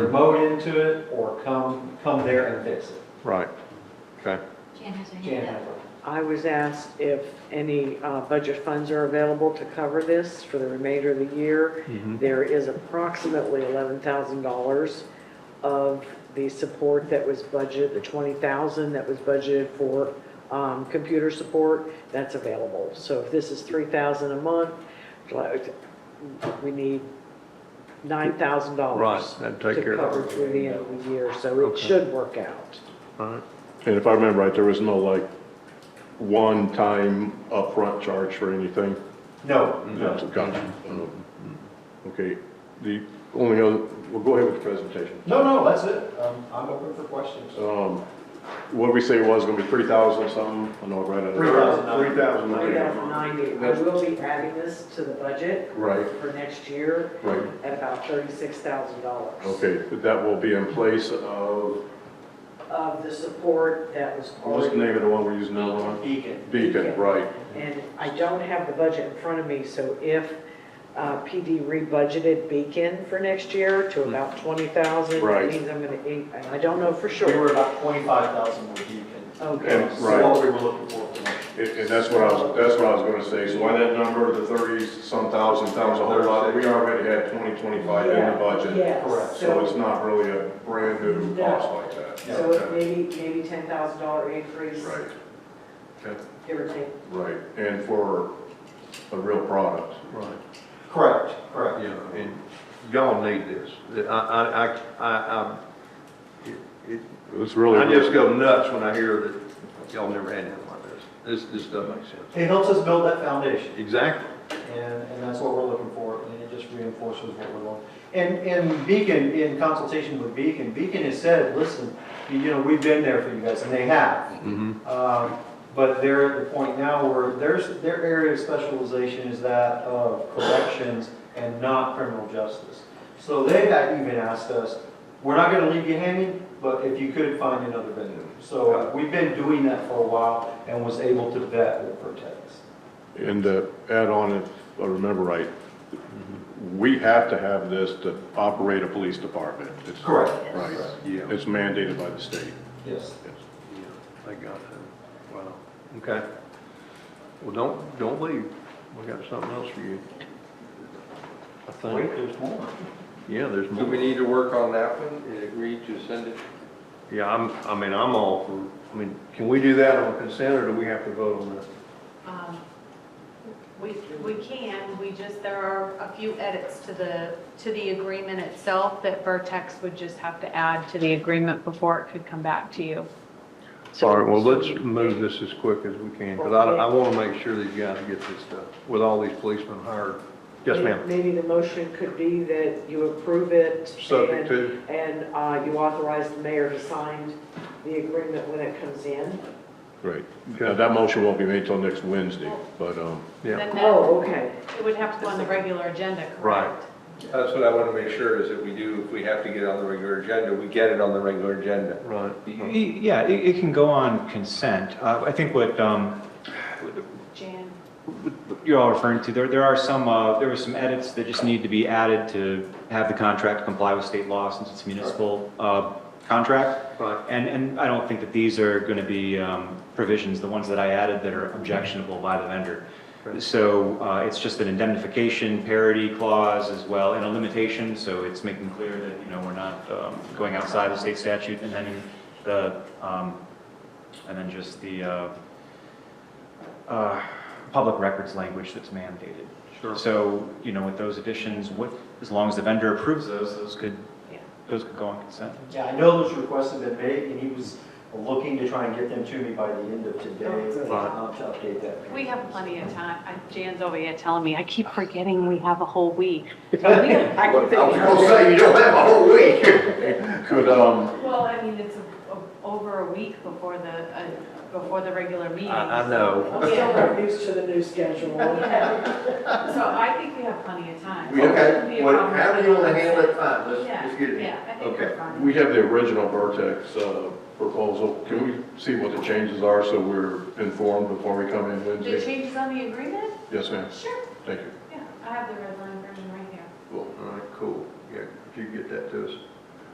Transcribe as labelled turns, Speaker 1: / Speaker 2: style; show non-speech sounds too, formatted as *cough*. Speaker 1: remote into it or come, come there and fix it.
Speaker 2: Right, okay.
Speaker 3: Jan has her
Speaker 1: Jan
Speaker 3: hand up.
Speaker 1: Hoover.
Speaker 4: I was asked if any uh, budget funds are available to cover this for the remainder of the year. There is approximately $11,000 of the support that was budgeted, the 20,000 that was budgeted for um, computer support, that's available. So if this is 3,000 a month, like, we need $9,000.
Speaker 2: Right, that'd take care of it.
Speaker 4: To cover through the end of the year, so it
Speaker 2: Okay.
Speaker 4: should work out.
Speaker 2: Alright,
Speaker 5: And if I remember right, there was no like one-time upfront charge for anything?
Speaker 1: No, no.
Speaker 5: Gotcha. Mm-hmm. Okay, the only other, well, go ahead with the presentation.
Speaker 1: No, no, that's it. Um, I'm open for questions.
Speaker 5: Um, what did we say it was, gonna be three thousand something? I know, right?
Speaker 1: $3,000.
Speaker 5: Three thousand.
Speaker 4: 3,090. I will be adding this to the budget
Speaker 5: Right,
Speaker 4: for next year
Speaker 5: right.
Speaker 4: at about $36,000.
Speaker 5: Okay, but that will be in place of,
Speaker 4: Of the support that was
Speaker 5: what's the
Speaker 4: already.
Speaker 5: name of the one we're using now on?
Speaker 1: Beacon.
Speaker 5: Beacon, right.
Speaker 4: And I don't have the budget in front of me, so if uh, PD rebudgeted Beacon for next year to about 20,000, that
Speaker 5: Hmm. Right.
Speaker 4: means I'm going to, and I don't know for
Speaker 1: We
Speaker 4: sure.
Speaker 1: were about twenty-five thousand with Beacon.
Speaker 4: Okay.
Speaker 5: And-
Speaker 1: So
Speaker 5: right.
Speaker 1: What we were looking for. for next-
Speaker 5: And, and that's what I was, that's what I was gonna say, so why that number, the thirties, some thousand, sounds a whole lot, we already had twenty, twenty-five in the
Speaker 4: Yeah,
Speaker 5: budget.
Speaker 4: yes,
Speaker 1: correct.
Speaker 5: So it's not really a brand new
Speaker 4: No.
Speaker 5: cost like that.
Speaker 1: Yeah.
Speaker 4: So it may be maybe $10,000 increase,
Speaker 5: Right. Okay.
Speaker 4: give or take.
Speaker 5: Right, and for a real product.
Speaker 2: right,
Speaker 1: Correct, correct.
Speaker 2: yeah, and y'all need this. I, I, I, I, I, it-
Speaker 5: It's
Speaker 2: I just go nuts when I hear that y'all never had anything like this. This, this doesn't make sense.
Speaker 1: It helps us build that foundation
Speaker 2: Exactly,
Speaker 1: and, and that's what we're looking for. And it just reinforces what we want. And, and Beacon, in consultation with Beacon, Beacon has said, listen, you know, we've been there for you guys and they have.
Speaker 2: mm-hmm,
Speaker 1: Um, But they're at the point now where there's, their area of specialization is that of corrections and not criminal justice. So they had even asked us, we're not gonna leave you hanging, but if you could find another vendor. So uh, we've been doing that for a while and was able to vet with Vertex.
Speaker 5: And to add on, if I remember right, we have to have this to operate a police department. It's-
Speaker 1: Correct.
Speaker 5: Right,
Speaker 2: yeah, yeah,
Speaker 5: it's mandated by the state.
Speaker 1: Yes.
Speaker 2: I got it, wow, okay. Well, don't, don't leave, we got something else for you. I
Speaker 1: Wait,
Speaker 2: think,
Speaker 1: there's more.
Speaker 2: yeah, there's more.
Speaker 6: Do we need to work on that one and agree to send it?
Speaker 2: Yeah, I'm, I mean, I'm all for, I mean, can we do that on consent or do we have to vote on that?
Speaker 7: Um, We, we can, we just, there are a few edits to the, to the agreement itself that Vertex would just have to add to the agreement before it could come back to you.
Speaker 2: All right, well, let's move this as quick as we can, because I, I want to make sure these guys get this stuff with all these policemen hired. Yes, ma'am.
Speaker 4: Maybe the motion could be that you approve it.
Speaker 2: Subject
Speaker 4: and-
Speaker 2: to,
Speaker 4: And uh, you authorize the mayor to sign the agreement when it comes in?
Speaker 5: Right. Now, that motion won't be made till next Wednesday, but, um,
Speaker 2: yeah,
Speaker 7: Then that,
Speaker 4: Oh, okay.
Speaker 7: it would have to go on the regular agenda, correct?
Speaker 6: That's what I want to make sure is that we do, if we have to get it on the regular agenda, we get it on the regular agenda.
Speaker 2: right.
Speaker 8: Y- Yeah, it, it can go on consent. Uh, I think what, um,
Speaker 7: Jan,
Speaker 8: what you're all referring to, there, there are some, uh, there were some edits that just need to be added to have the contract comply with state law since it's a municipal, uh, contract.
Speaker 2: Right.
Speaker 8: And, and I don't think that these are gonna be, um, provisions, the ones that I added that are objectionable by the vendor.
Speaker 2: Right.
Speaker 8: So, uh, it's just an indemnification parity clause as well and a limitation, so it's making clear that, you know, we're not, um, going outside the state statute and then the, um, and then just the, uh, uh, public records language that's mandated.
Speaker 2: Sure.
Speaker 8: So, you know, with those additions, what, as long as the vendor approves those, those could,
Speaker 7: Yeah.
Speaker 8: those could go on consent.
Speaker 1: Yeah, I know those requests have been made and he was looking to try and get them to me by the end of today. um, To update that.
Speaker 7: we have plenty of time. I- Jan's over here telling me, I keep forgetting we have a
Speaker 5: *laughs*
Speaker 7: whole week. We have-
Speaker 4: I can
Speaker 5: I was
Speaker 4: think-
Speaker 5: gonna say, you don't have a whole *laughs* week. Could, um,
Speaker 7: Well, I mean, it's a- a- over a week before the, uh, before the regular meeting.
Speaker 2: I, I know.
Speaker 4: I'm still not used to the new schedule.
Speaker 7: *laughs* So I think we have plenty of time.
Speaker 6: We
Speaker 7: It
Speaker 6: okay.
Speaker 7: shouldn't be a
Speaker 6: What-
Speaker 7: problem.
Speaker 6: How do you want to handle it? Fine, let's, let's get
Speaker 7: Yeah,
Speaker 6: it.
Speaker 7: yeah, I think
Speaker 6: Okay.
Speaker 7: we're fine.
Speaker 5: we have the original Vertex uh, proposal. Can we see what the changes are so we're informed before we come in
Speaker 7: The
Speaker 5: Wednesday?
Speaker 7: changes on the agreement?
Speaker 5: Yes, ma'am.
Speaker 7: Sure,
Speaker 5: Thank you.
Speaker 7: yeah, I have the red line version right here.
Speaker 5: Cool.
Speaker 2: All right, cool, yeah, if you get that to us.